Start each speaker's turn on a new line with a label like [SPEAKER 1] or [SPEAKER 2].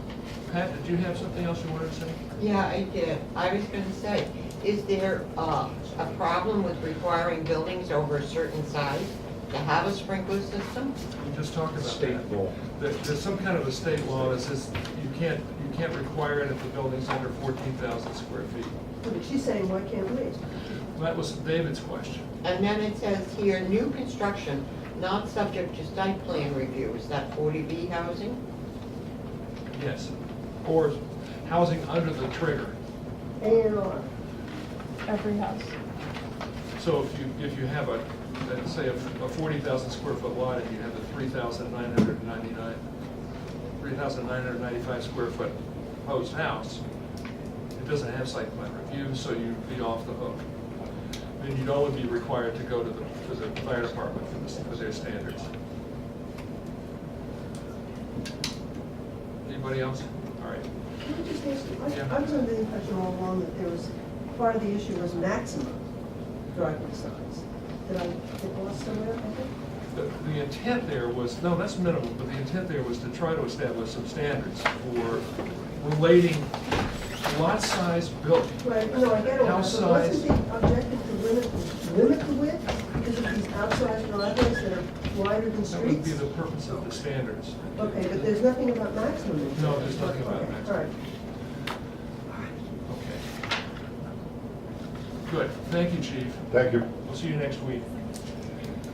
[SPEAKER 1] Pat, did you have something else you wanted to say?
[SPEAKER 2] Yeah, I did. I was gonna say, is there uh, a problem with requiring buildings over a certain size to have a sprinkler system?
[SPEAKER 1] We just talked about that.
[SPEAKER 3] State law.
[SPEAKER 1] There- There's some kind of a state law that says you can't, you can't require it if the building's under fourteen thousand square feet.
[SPEAKER 4] But she's saying, why can't we?
[SPEAKER 1] That was David's question.
[SPEAKER 2] And then it says here, new construction, not subject to site plan review. Is that 40B housing?
[SPEAKER 1] Yes, or housing under the trigger.
[SPEAKER 4] A and R.
[SPEAKER 5] every house.
[SPEAKER 1] So if you, if you have a, let's say a forty thousand square foot lot and you have a three thousand nine hundred ninety-nine, three thousand nine hundred ninety-five square foot proposed house, it doesn't have site plan review, so you'd be off the hook. And you'd only be required to go to the, to the fire department for this, for their standards. Anybody else? All right.
[SPEAKER 4] Can I just ask you,
[SPEAKER 1] Yeah.
[SPEAKER 4] I I was under the impression all along that there was, part of the issue was maximum driveway size. Did I get lost somewhere? I think?
[SPEAKER 1] The the intent there was, no, that's minimum, but the intent there was to try to establish some standards for relating lot size building.
[SPEAKER 4] Right, no, I get all that,
[SPEAKER 1] House
[SPEAKER 4] but wasn't
[SPEAKER 1] size.
[SPEAKER 4] the objective to limit, limit the width because of these outside driveways that are wider than
[SPEAKER 1] That would be
[SPEAKER 4] streets?
[SPEAKER 1] the purpose of the standards.
[SPEAKER 4] Okay, but there's nothing about maximum. in here.
[SPEAKER 1] No, there's nothing about
[SPEAKER 4] Okay,
[SPEAKER 1] maximum.
[SPEAKER 4] All right.
[SPEAKER 1] Okay. Good, thank you, chief.
[SPEAKER 3] Thank you.
[SPEAKER 1] We'll see you next week.